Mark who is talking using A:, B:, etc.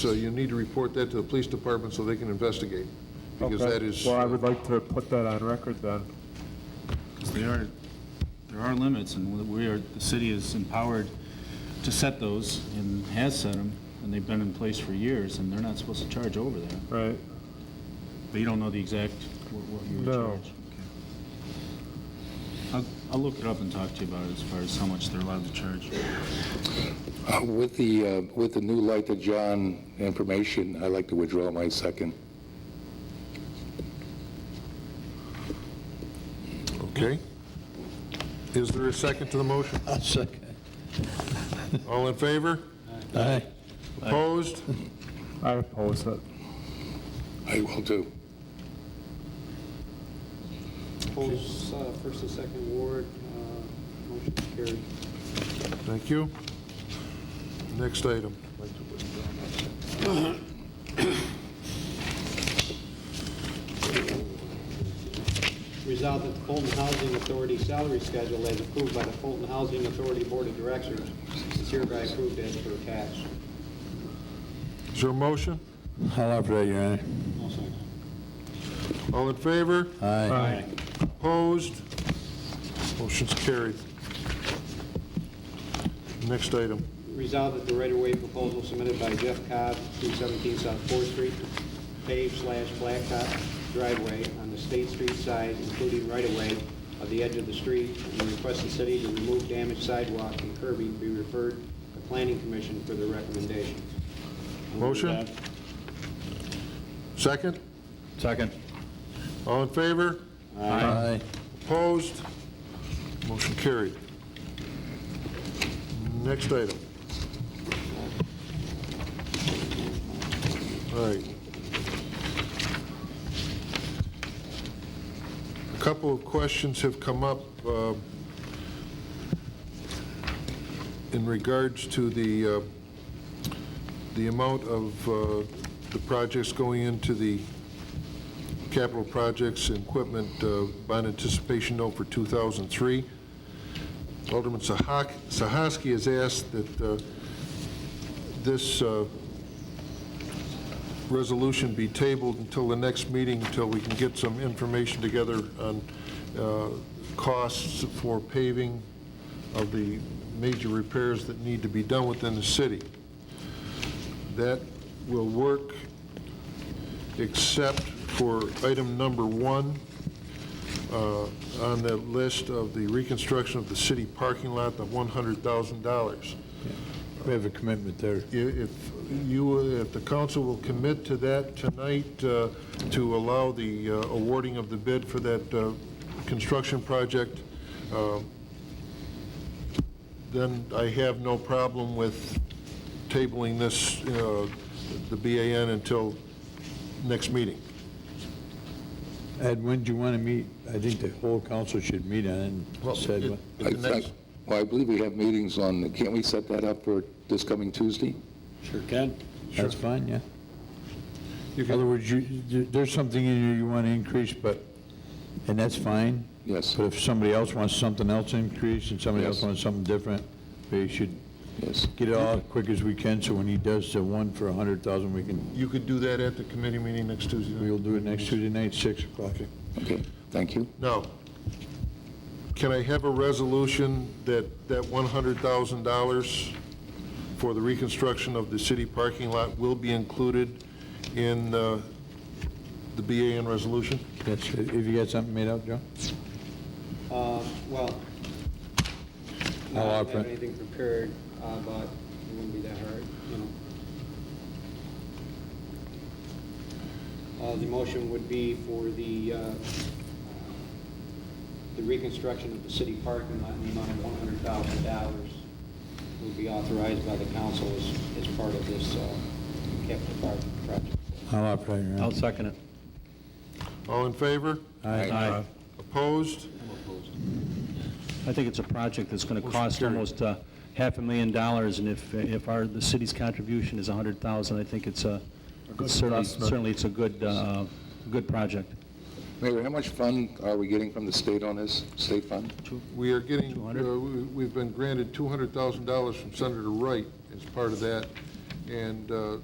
A: So you need to report that to the police department so they can investigate, because
B: Okay.
A: that is, uh,
B: Well, I would like to put that on record then.
C: 'Cause There are, there are limits, and we are, the city is empowered to set those, and has set them, and they've been in place for years, and they're not supposed to charge over that.
B: Right.
C: But you don't know the exact, what what you were
B: No.
C: charged? Okay. I'll, I'll look it up and talk to you about it as far as how much they're allowed to charge.
D: Uh, With the, uh, with the new light to John information, I'd like to withdraw my second.
A: okay? Is there a second to the motion?
E: I'll second.
A: All in favor?
E: Aye.
A: Opposed?
B: I oppose it.
D: I will do.
F: Polls, uh, first and second ward, uh, motion carried.
A: Thank you. Next item.
F: Resolved that the Fulton Housing Authority salary schedule as approved by the Fulton Housing Authority Board of Directors is hereby approved as per attached.
A: Is there a motion?
E: I'll offer that, Your Honor.
A: All in favor?
E: Aye.
B: Aye.
A: Opposed? Motion's carried. Next item.
F: Resolved that the right-of-way proposal submitted by Jeff Cobb, 217 South Fourth Street, paved slash blacktop driveway on the State Street side, including right-of-way of the edge of the street, and request the city to remove damaged sidewalk and curbing be referred to Planning Commission for their recommendation.
A: Motion? Second?
C: Second.
A: All in favor?
E: Aye.
A: Opposed? Motion carried. Next item. All right. A couple of questions have come up uh, in regards to the, uh, the amount of uh, the projects going into the capital projects and equipment uh, bond anticipation note for 2003. Alderman Sahak- Sahaski has asked that uh, this uh, resolution be tabled until the next meeting, until we can get some information together on uh, costs for paving of the major repairs that need to be done within the city. That will work except for item number one uh, on the list of the reconstruction of the city parking lot, the $100,000.
E: We have a commitment there.
A: I- If you, if the council will commit to that tonight, uh, to allow the uh, awarding of the bid for that uh, construction project, uh, then I have no problem with tabling this, uh, the BAN, until next meeting.
E: Ed, when do you want to meet? I think the whole council should meet on
A: Well,
E: it. Said
A: it-
E: what-
A: At the
D: I- I-
A: next-
D: Well, I believe we have meetings on, can't we set that up for this coming Tuesday?
E: Sure can. That's fine, yeah.
A: You
E: In
A: can-
E: other words, you, there- there's something in here you want to increase, but, and that's fine.
D: Yes.
E: But if somebody else wants something else increased and somebody else
D: Yes.
E: wants something different, we should
D: Yes.
E: get it all as quick as we can, so when he does the one for a hundred thousand, we can,
A: You could do that at the committee meeting next Tuesday. night.
E: we'll do it next Tuesday night, six o'clock.
D: Okay, thank you.
A: Now, can I have a resolution that, that $100,000 for the reconstruction of the city parking lot will be included in uh, the BAN resolution?
E: That's, if you got something made up, Joe?
F: Uh, Well,
E: I'll
F: I don't
E: offer it.
F: have anything prepared, uh, but it wouldn't be that hard, you know. Uh, The motion would be for the, uh, the reconstruction of the city parking lot in the amount of one hundred thousand dollars will be authorized by the council as, as part of this uh, capital parking project.
E: I'll operate, Your Honor.
G: I'll second it.
A: All in favor?
E: Aye.
A: Opposed?
G: I think it's a project that's going to
A: Motion
G: cost
A: carried.
G: almost uh, half a million dollars, and if, if our, the city's contribution is 100,000, I think it's a, it's certainly,
B: investment.
G: certainly it's a good, uh, good project.
D: Mayor, how much fund are we getting from the state on this, state fund?
A: We are getting,
G: 200?
A: uh, we- we've been granted $200,000 from Senator Wright as part of that, and uh,